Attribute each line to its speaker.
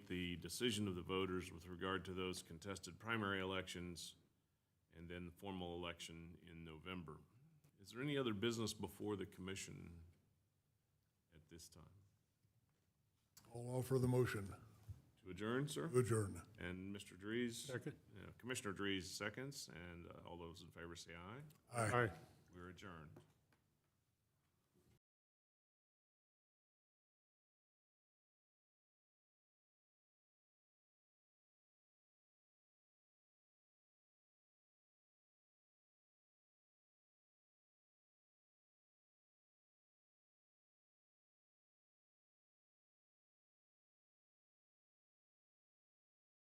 Speaker 1: decision of the voters with regard to those contested primary elections, and then the formal election in November. Is there any other business before the commission at this time?
Speaker 2: I'll offer the motion
Speaker 1: To adjourn, sir?
Speaker 2: to adjourn.
Speaker 1: And Mr. Dries?
Speaker 3: Second.
Speaker 1: Yeah, Commissioner Dries seconds, and uh, all those in favor say aye.
Speaker 2: Aye.
Speaker 3: Aye.
Speaker 1: We're adjourned.